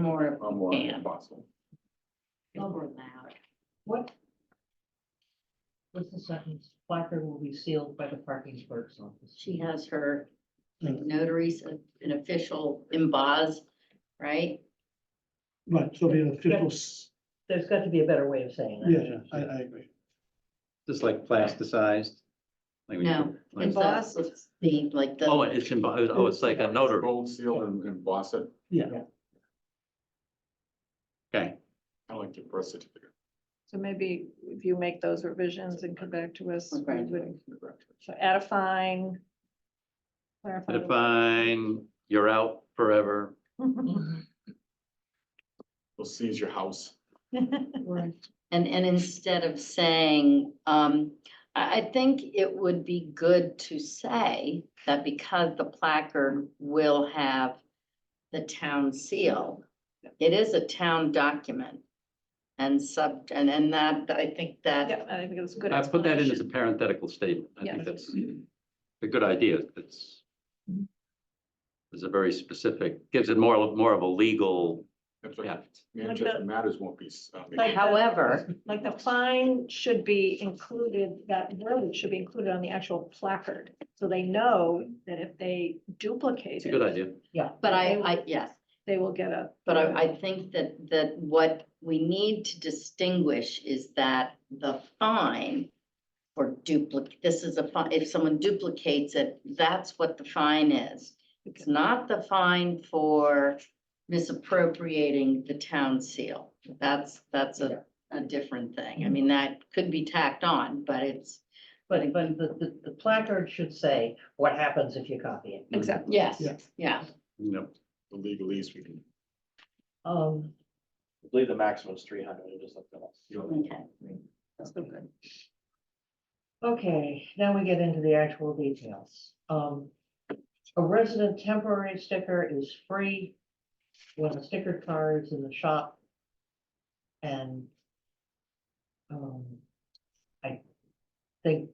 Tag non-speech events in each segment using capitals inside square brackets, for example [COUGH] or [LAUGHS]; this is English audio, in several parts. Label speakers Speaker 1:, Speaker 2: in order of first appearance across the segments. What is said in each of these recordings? Speaker 1: more
Speaker 2: I'm more
Speaker 1: Yeah.
Speaker 2: possible.
Speaker 1: overlap.
Speaker 3: What? What's the sentence? Placard will be sealed by the parking clerk's office.
Speaker 1: She has her notaries, uh, an official emboss, right?
Speaker 4: Right, so the official, s-
Speaker 3: There's got to be a better way of saying that.
Speaker 4: yeah, yeah, I, I agree.
Speaker 5: Just like plasticized? Like when you-
Speaker 1: No,
Speaker 5: like-
Speaker 1: it's a- it's the, like
Speaker 5: Oh,
Speaker 1: the,
Speaker 5: it's, in- oh, it's like a notary.
Speaker 2: Gold seal and, and emboss it,
Speaker 5: Okay,
Speaker 2: kind of like the birth certificate.
Speaker 6: So maybe if you make those revisions and come back to us,
Speaker 1: Or
Speaker 6: we would,
Speaker 1: graduate.
Speaker 6: so add a fine. clarify the-
Speaker 5: define, you're out forever.
Speaker 2: We'll seize your house.
Speaker 1: [LAUGHS] and, and instead of saying, um, I, I think it would be good to say that because the placard will have the town seal, it is a town document and sub, and, and that, I think that
Speaker 6: [LAUGHS] Yeah, I think it's a good.
Speaker 5: I put that in as a
Speaker 6: explanation.
Speaker 5: parenthetical statement. I
Speaker 6: Yeah. Mm-hmm.
Speaker 5: think that's a good idea. It's it's a very specific, gives it more, more of a legal
Speaker 2: That's what
Speaker 5: depth.
Speaker 2: Manchester matters won't be. uh,
Speaker 6: Like that.
Speaker 1: However,
Speaker 6: Like the fine should be included, that verbiage should be included on the actual placard, so they know that if they duplicate
Speaker 5: It's a good
Speaker 6: it,
Speaker 5: idea.
Speaker 1: but I, I, yes,
Speaker 6: they will get a.
Speaker 1: but I, I think that, that what we need to distinguish is that the fine for duplicate, this is a fine, if someone duplicates it, that's what the fine is. It's not the fine for misappropriating the town seal. That's, that's a, a different thing. I mean, that could be tacked on, but it's,
Speaker 3: But, but the, the, the placard should say what happens if you copy it.
Speaker 6: Exactly.
Speaker 1: yes,
Speaker 4: Yeah.
Speaker 1: yeah.
Speaker 5: Yep.
Speaker 2: The legalese we can.
Speaker 3: Um,
Speaker 7: I believe the maximum is three hundred, I just looked it up.
Speaker 1: Okay.
Speaker 6: That's so good.
Speaker 3: okay, now we get into the actual details. Um, a resident temporary sticker is free when a sticker car is in the shop. And um, I think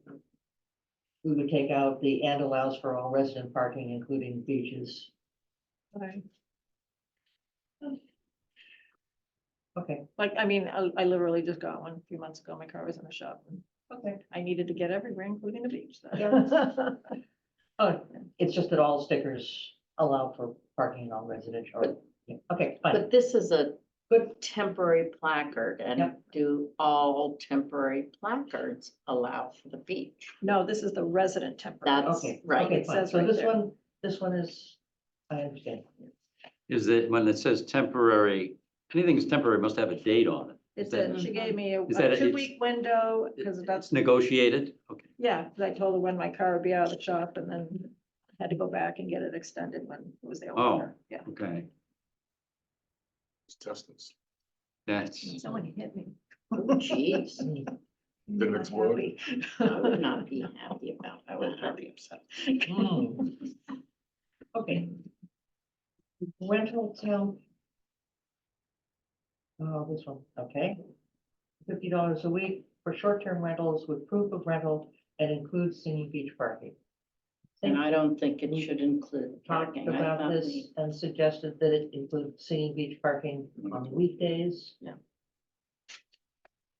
Speaker 3: we would take out the and allows for all resident parking, including beaches.
Speaker 6: Okay.
Speaker 3: Okay,
Speaker 6: Like, I mean, I, I literally just got one a few months ago, my car was in the shop, and
Speaker 3: okay.
Speaker 6: I needed to get everywhere, including the beach. so.
Speaker 3: Oh, it's just that all stickers allow for parking in all residential, or, yeah, okay, fine.
Speaker 1: But this is a
Speaker 3: Good.
Speaker 1: temporary placard and
Speaker 3: Yep.
Speaker 1: do all temporary placards allow for the beach?
Speaker 6: [LAUGHS] No, this is the resident temporary.
Speaker 1: That's
Speaker 3: Okay,
Speaker 1: right,
Speaker 3: okay,
Speaker 6: it
Speaker 3: fine.
Speaker 6: says
Speaker 3: So
Speaker 6: right
Speaker 3: this
Speaker 6: there.
Speaker 3: one, this one is, I understand.
Speaker 6: [LAUGHS]
Speaker 5: Is that when it says temporary, anything that's temporary must have a date on it.
Speaker 6: It's
Speaker 5: that-
Speaker 6: a, she gave me a
Speaker 5: Is that
Speaker 6: a
Speaker 5: it's-
Speaker 6: two-week window, because that's,
Speaker 5: It's negotiated. Okay.
Speaker 6: yeah, 'cause I told her when my car would be out of the shop, and then had to go back and get it extended when it was the old
Speaker 5: Oh.
Speaker 6: owner, yeah.
Speaker 5: Okay.
Speaker 2: Test this.
Speaker 5: That's,
Speaker 6: Someone hit me.
Speaker 1: Oh, Jeez,
Speaker 2: Didn't
Speaker 6: [LAUGHS]
Speaker 2: explode.
Speaker 1: I would not be happy about, I would not be upset.
Speaker 3: Mm. Okay. Rental town. Oh, this one, okay. Fifty dollars a week for short-term rentals with proof of rental and includes singing beach parking.
Speaker 1: And I don't think it should include
Speaker 3: Talked
Speaker 1: parking. I
Speaker 3: about
Speaker 1: thought
Speaker 3: this
Speaker 1: we-
Speaker 3: and suggested that it include singing beach parking on weekdays.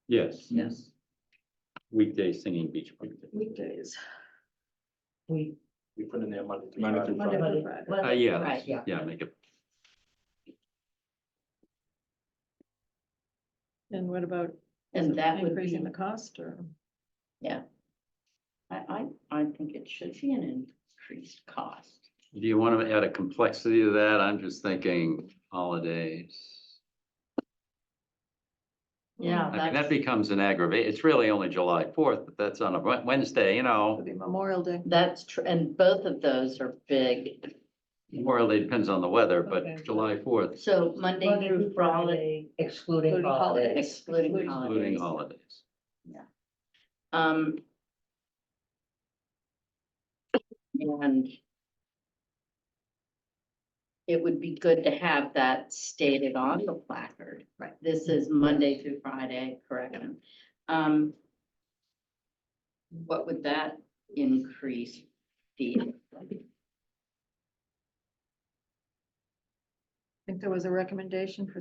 Speaker 5: yes.
Speaker 1: Yes.
Speaker 5: Weekday singing beach party.
Speaker 6: [LAUGHS] Weekdays,
Speaker 3: We.
Speaker 7: We put in there Monday. through
Speaker 2: Monday
Speaker 7: Friday.
Speaker 2: through
Speaker 6: Monday
Speaker 3: Monday-
Speaker 6: through Friday.
Speaker 5: Uh,
Speaker 3: Monday-
Speaker 5: yeah, that's-
Speaker 1: Right,
Speaker 3: yeah.
Speaker 5: yeah, make it,
Speaker 6: and what about? is
Speaker 1: And
Speaker 6: it
Speaker 1: that would
Speaker 6: Increasing
Speaker 1: be-
Speaker 6: the cost, or?
Speaker 1: I, I, I think it should be an increased cost.
Speaker 5: do you want to add a complexity to that? I'm just thinking holidays.
Speaker 1: Yeah,
Speaker 5: I mean,
Speaker 1: that's,
Speaker 5: that becomes an aggravate. It's really only July fourth, but that's on a Wed- Wednesday, you
Speaker 6: It'll
Speaker 5: know.
Speaker 6: be Memorial Day.
Speaker 1: that's true, and both of those are big.
Speaker 5: Well, it depends on the weather,
Speaker 3: Okay.
Speaker 5: but July fourth,
Speaker 1: So Monday through Friday
Speaker 3: Excluding
Speaker 6: Including
Speaker 3: holidays.
Speaker 6: holidays.
Speaker 1: excluding
Speaker 6: Excluding-
Speaker 5: including
Speaker 1: holidays.
Speaker 5: holidays.
Speaker 1: Um. And. It would be good to have that stated on the placard.
Speaker 6: Right.
Speaker 1: This is Monday through Friday, correct? Um. What would that increase be?
Speaker 6: I think there was a recommendation for